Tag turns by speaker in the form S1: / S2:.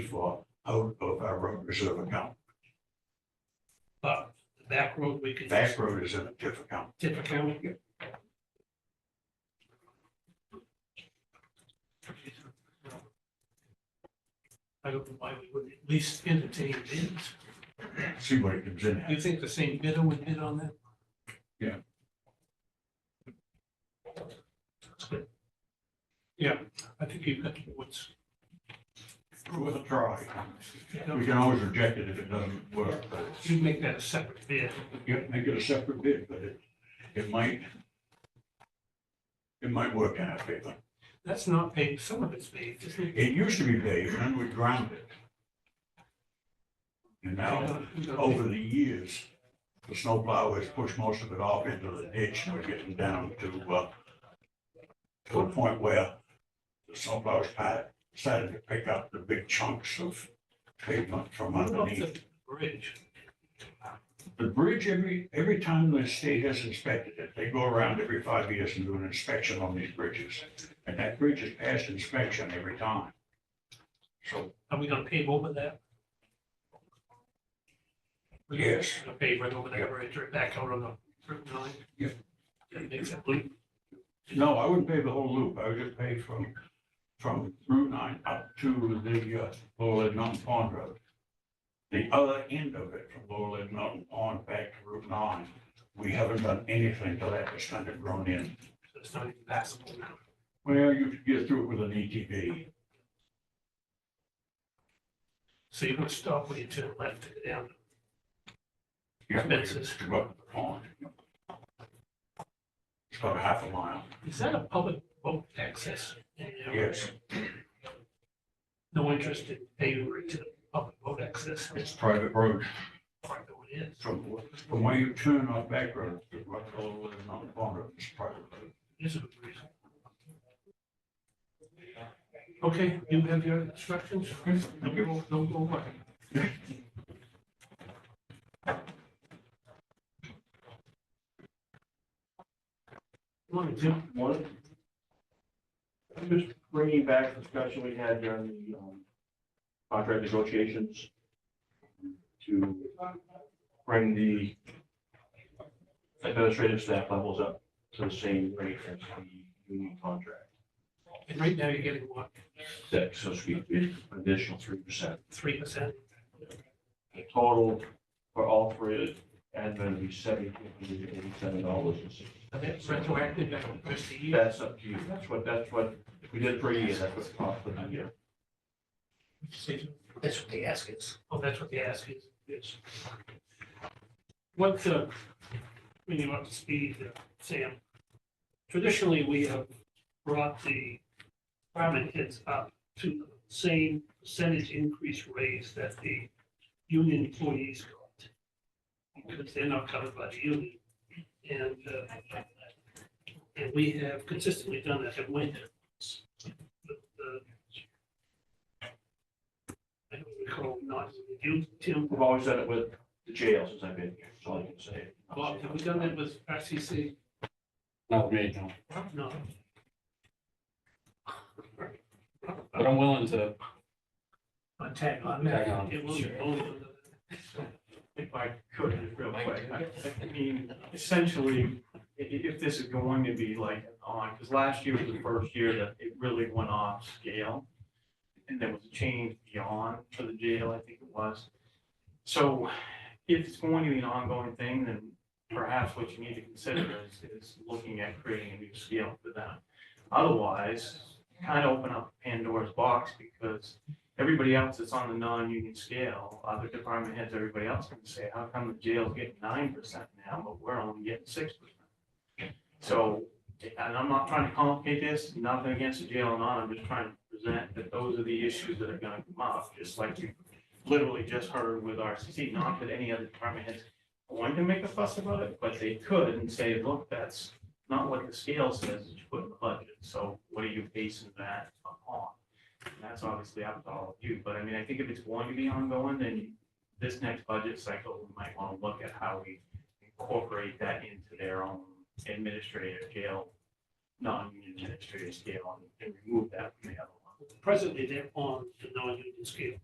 S1: for out of our road reserve account.
S2: But the back road, we could
S1: That road is in a TIF account.
S2: tip account. I don't know why we would at least entertain bids.
S1: See what it comes in
S2: Do
S1: at.
S2: you think the same bidder would bid on that?
S1: Yeah.
S2: That's good. Yeah, I think you've got what's,
S1: With a try. We can always reject it if it doesn't work, but it's-
S2: you make that a separate bid.
S1: yeah, make it a separate bid, but it, it might, it might work in our favor.
S2: That's not paid, some of it's paid, isn't it?
S1: It used to be paved, and we ground it. And now, over the years, the snowplow has pushed most of it off into the ditch, and we're getting down to, uh, to a point where the snowplow's pa- started to pick up the big chunks of pavement from
S2: What about
S1: underneath.
S2: the Bridge.
S1: The bridge, every, every time the state has inspected it, they go around every five years and do an inspection on these bridges. And that bridge is passed inspection every time. So,
S2: Are we gonna pave over that? We're
S1: Yes.
S2: Gonna pave right over
S1: Yeah.
S2: that bridge, right back out on the Route nine?
S1: Yeah.
S2: That makes it loop.
S1: no, I wouldn't pave the whole loop. I would just pave from, from Route nine up to the, uh, Lower Lid Mountain Pond Road. The other end of it, from Lower Lid Mountain Pond back to Route nine, we haven't done anything to that. It's kind of grown in.
S2: so it's not even passable now.
S1: Well, you could get through it with an E ATV.
S2: So you're gonna stop where you turn left to go down.
S1: Yeah,
S2: Fences.
S1: To go up the pond. It's about a half a mile.
S2: Is that a public boat access? in there?
S1: Yes,
S2: No interest in paving right to the public boat access?
S1: it's private road.
S2: Part of it is.
S1: From, from where you turn on back road, to what road is on the pond, it's private road.
S2: This is a good reason. Okay, you have your instructions? Don't go, don't go away. Morning, Jim.
S3: One. I'm just bringing back the discussion we had during the, um, contract negotiations to bring the administrative staff levels up to the same rate as the union contract.
S2: And right now you're getting what,
S3: Six, so it's going to be an additional three percent.
S2: three percent?
S3: The total for all three admin would be seventeen hundred and eighty-seven dollars and sixty.
S2: And that's retroactive back to the first of the year.
S3: That's up to you. That's what, that's what, if we did it for a year, that's what it cost for the year.
S2: That's what they ask is. Oh, that's what they ask is, yes. What, uh, when you up to speed, uh, Sam, traditionally, we have brought the department heads up to the same percentage increase raise that the union employees got. Because they're not covered by the union. And, uh, and we have consistently done that at Wyndham. But, uh, I don't recall not, you, Tim,
S3: We've always done it with the jail since I've been here, that's all I can say.
S2: Bob, have we done that with RCC?
S4: Not me, no,
S2: No.
S4: but I'm willing to,
S2: On tag on that.
S4: Tag on.
S2: It will be both.
S5: if I could, real quick, I I mean, essentially, i- i- if this is going to be like on, because last year was the first year that it really went off scale. And there was a change beyond for the jail, I think it was. So if it's going to be an ongoing thing, then perhaps what you need to consider is, is looking at creating a new scale for them. Otherwise, kind of open up Pandora's box because everybody else that's on the non-union scale, other department heads, everybody else can say, how come the jail's getting nine percent now, but we're only getting six percent? So, and I'm not trying to complicate this, nothing against the jail and on, I'm just trying to present that those are the issues that are gonna come up, just like you literally just heard with RCC, not that any other department heads wanted to make a fuss about it, but they could and say, look, that's not what the scale says that you put in the budget, so what are you basing that upon? And that's obviously up to all of you, but I mean, I think if it's going to be ongoing, then this next budget cycle, we might want to look at how we incorporate that into their own administrative jail, non-union administrative scale, and- and remove that from the other one.
S2: Presently, they're on the non-union scale.